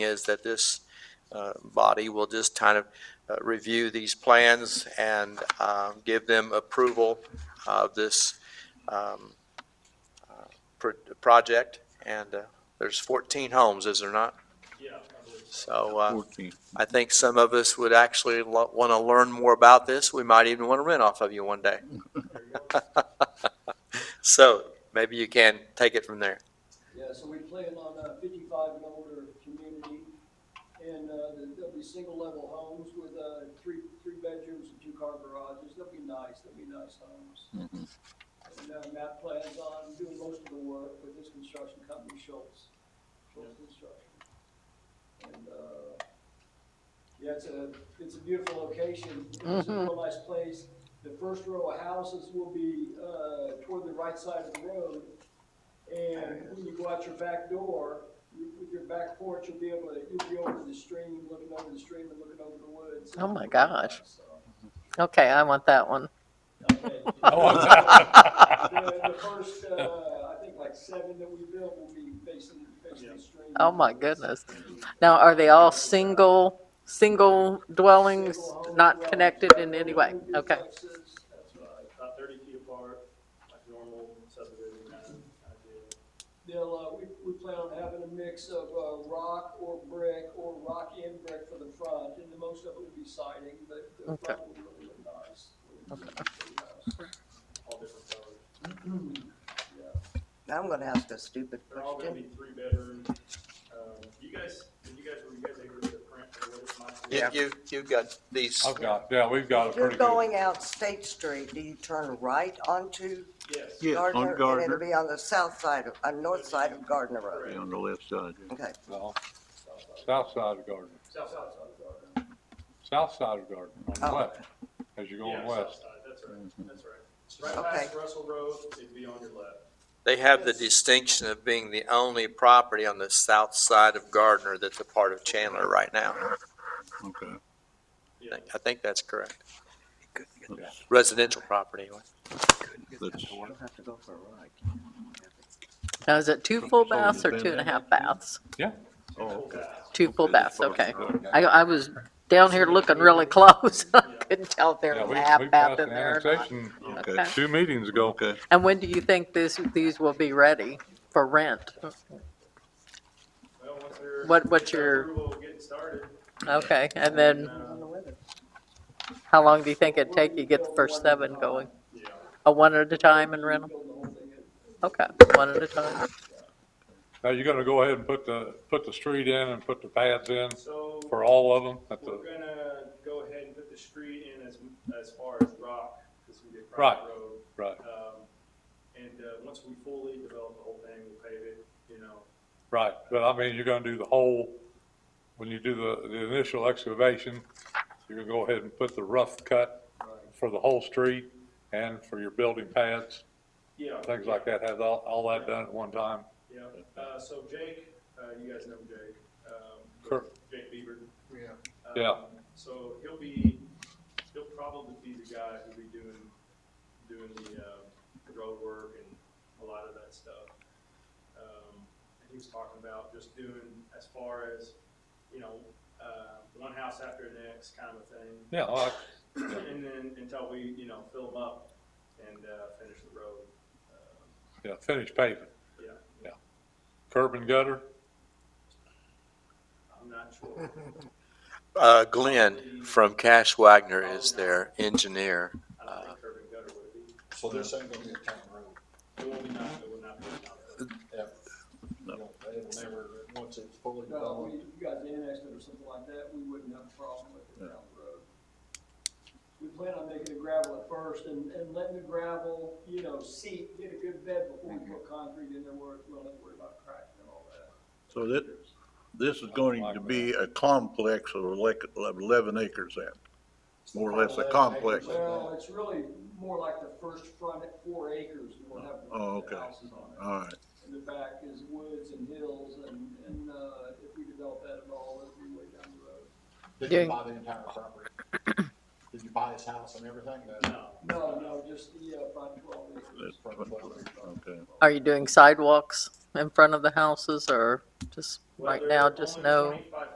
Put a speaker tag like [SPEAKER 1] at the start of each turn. [SPEAKER 1] is that this uh, body will just kind of uh, review these plans and um, give them approval of this um, uh, pro- project. And uh, there's 14 homes, is there not? Yeah. So uh,
[SPEAKER 2] 14.
[SPEAKER 1] I think some of us would actually want to learn more about this. We might even want to rent off of you one day. So maybe you can take it from there.
[SPEAKER 3] Yeah, so we plan on uh, fifty-five and older community, and uh, there- there'll be single-level homes with uh, three, three bedrooms and two-car garages, they'll be nice, they'll be nice homes. And uh, Matt plans on doing most of the work with his construction company, Schultz, Schultz Construction. And, uh, yeah, it's a, it's a beautiful location, it's
[SPEAKER 4] Mm-hmm.
[SPEAKER 3] a real nice place. The first row of houses will be uh, toward the right side of the road, and when you go out your back door, you- with your back porch, you'll be able to, you'll be over the stream, looking over the stream and looking over the woods.
[SPEAKER 4] Oh my gosh.
[SPEAKER 3] So,
[SPEAKER 4] Okay, I want that one.
[SPEAKER 3] okay. The the first, uh, I think like seven that we built will be facing, facing the stream.
[SPEAKER 4] Oh my goodness. Now, are they all single, single dwellings,
[SPEAKER 3] Single home
[SPEAKER 4] not
[SPEAKER 3] dwellings,
[SPEAKER 4] connected in any way?
[SPEAKER 3] no
[SPEAKER 4] Okay,
[SPEAKER 3] duplexes, That's right.
[SPEAKER 5] uh, about thirty feet apart, like normal subdivision kind of kind of deal.
[SPEAKER 3] They'll, uh, we, we plan on having a mix of, uh, rock or brick or rock and brick for the front, and the most of it will be siding, but the
[SPEAKER 4] Okay.
[SPEAKER 3] front will really look nice. Okay.
[SPEAKER 5] all different colors.
[SPEAKER 6] I'm gonna ask a stupid
[SPEAKER 5] They're all gonna
[SPEAKER 6] question.
[SPEAKER 5] be three bedroom. Um, you guys, did you guys, were you guys able to print or what it might be?
[SPEAKER 1] You- You, you've got these.
[SPEAKER 2] I've got, yeah, we've got a
[SPEAKER 6] If you're
[SPEAKER 2] pretty good.
[SPEAKER 6] going out State Street, do you turn right onto
[SPEAKER 5] Yes,
[SPEAKER 2] Yeah, on
[SPEAKER 6] Gardner? And
[SPEAKER 2] Gardner.
[SPEAKER 6] it'll be on the south side, of uh, north side of Gardner Road.
[SPEAKER 2] Yeah, On the left side, yeah.
[SPEAKER 6] Okay,
[SPEAKER 2] Well, south side of Gardner,
[SPEAKER 5] south side, south side.
[SPEAKER 2] south side of Gardner, on the
[SPEAKER 6] Oh.
[SPEAKER 2] left, as you're
[SPEAKER 5] Yeah,
[SPEAKER 2] going
[SPEAKER 5] south
[SPEAKER 2] west. Mm-hmm.
[SPEAKER 5] side, that's right, that's right. Right past Russell Road, it'd be on your left.
[SPEAKER 1] They have the distinction of being the only property on the south side of Gardner that's a part of Chandler right now.
[SPEAKER 2] Okay.
[SPEAKER 1] I think- I think that's correct.
[SPEAKER 2] Yeah.
[SPEAKER 1] Residential property. anyway.
[SPEAKER 2] That's-
[SPEAKER 4] now is it two full
[SPEAKER 2] So
[SPEAKER 4] baths or
[SPEAKER 2] then-
[SPEAKER 4] two and a half baths?
[SPEAKER 2] Yeah.
[SPEAKER 5] Two full baths.
[SPEAKER 4] Two full baths, okay.
[SPEAKER 2] Yeah,
[SPEAKER 4] I, I was down here looking really close. I Couldn't tell if there was a
[SPEAKER 2] we- we
[SPEAKER 4] half
[SPEAKER 2] passed
[SPEAKER 4] bath in
[SPEAKER 2] an
[SPEAKER 4] there or not.
[SPEAKER 2] annexation
[SPEAKER 4] Okay.
[SPEAKER 2] Two meetings ago. Okay.
[SPEAKER 4] And when do you think this, these will be ready for rent?
[SPEAKER 5] Well, once they're.
[SPEAKER 4] What- what's your-
[SPEAKER 5] Approval of getting started.
[SPEAKER 4] Okay, and then
[SPEAKER 5] uh,
[SPEAKER 6] on the weather.
[SPEAKER 4] how long do you think it'd take you to get the first seven going?
[SPEAKER 5] Yeah,
[SPEAKER 4] A one at a time and rent them?
[SPEAKER 3] Build the whole thing in.
[SPEAKER 4] Okay, one at a time.
[SPEAKER 2] Now, you're gonna go ahead and put the, put the street in and put the pads in
[SPEAKER 5] so.
[SPEAKER 2] for all of them at
[SPEAKER 5] We're
[SPEAKER 2] the,
[SPEAKER 5] gonna go ahead and put the street in as, as far as Rock, because we get
[SPEAKER 2] Right.
[SPEAKER 5] private road.
[SPEAKER 2] right,
[SPEAKER 5] Um, and, uh, once we fully develop the whole thing, we'll pave it, you know,
[SPEAKER 2] right. But I mean, you're gonna do the whole, when you do the, the initial excavation, you're gonna go ahead and put the rough cut for the whole street and for your building pads.
[SPEAKER 5] yeah.
[SPEAKER 2] things like that, have all, all that done at one time.
[SPEAKER 5] Yeah, uh, so Jake, uh, you guys know Jake, um,
[SPEAKER 2] Sure.
[SPEAKER 5] Jake Bieber. Yeah.
[SPEAKER 2] Yeah.
[SPEAKER 5] So he'll be, he'll probably be the guy who'll be doing, doing the, uh, road work and a lot of that stuff. Um, and he was talking about just doing as far as, you know, uh, one house after the next kind of a thing.
[SPEAKER 2] Yeah, all right.
[SPEAKER 5] And then until we, you know, fill them up and, uh, finish the road. Um,
[SPEAKER 2] yeah, finish paving,
[SPEAKER 5] Yeah,
[SPEAKER 2] curb and gutter,
[SPEAKER 5] I'm not sure.
[SPEAKER 1] Uh, Glenn from Cash Wagner is their engineer. uh,
[SPEAKER 5] I don't think curb and gutter would be.
[SPEAKER 7] So this ain't gonna be a town road.
[SPEAKER 5] It will be not, it will not be a town road.
[SPEAKER 7] You know, They'll never, once it's fully
[SPEAKER 3] No,
[SPEAKER 7] developed.
[SPEAKER 3] we, you guys annexed it or something like that, we wouldn't have a problem with it down the road. We plan on making it gravel at first and, and letting the gravel, you know, seep, get a good bed before we put concrete in there, where we don't have to worry about cracking and all that.
[SPEAKER 8] So that, this is going to be a complex of elec- of eleven acres then, more or less a complex.
[SPEAKER 3] Well, uh, it's really more like the first front at four acres, and we'll have
[SPEAKER 8] Oh,
[SPEAKER 3] the
[SPEAKER 8] okay.
[SPEAKER 3] houses on it.
[SPEAKER 8] All right,
[SPEAKER 3] And the back is woods and hills, and, and, uh, if we develop that at all, it'll be way down the road.
[SPEAKER 7] Did
[SPEAKER 4] Doing-
[SPEAKER 7] you buy the entire property? Did you buy his house and everything? No.
[SPEAKER 3] No, no, just the, uh, front twelve acres.
[SPEAKER 8] That's- okay.
[SPEAKER 4] Are you doing sidewalks? in front of the houses or just
[SPEAKER 5] Well,
[SPEAKER 4] right
[SPEAKER 5] there
[SPEAKER 4] now,
[SPEAKER 5] are
[SPEAKER 4] just
[SPEAKER 5] only
[SPEAKER 4] no?
[SPEAKER 5] 25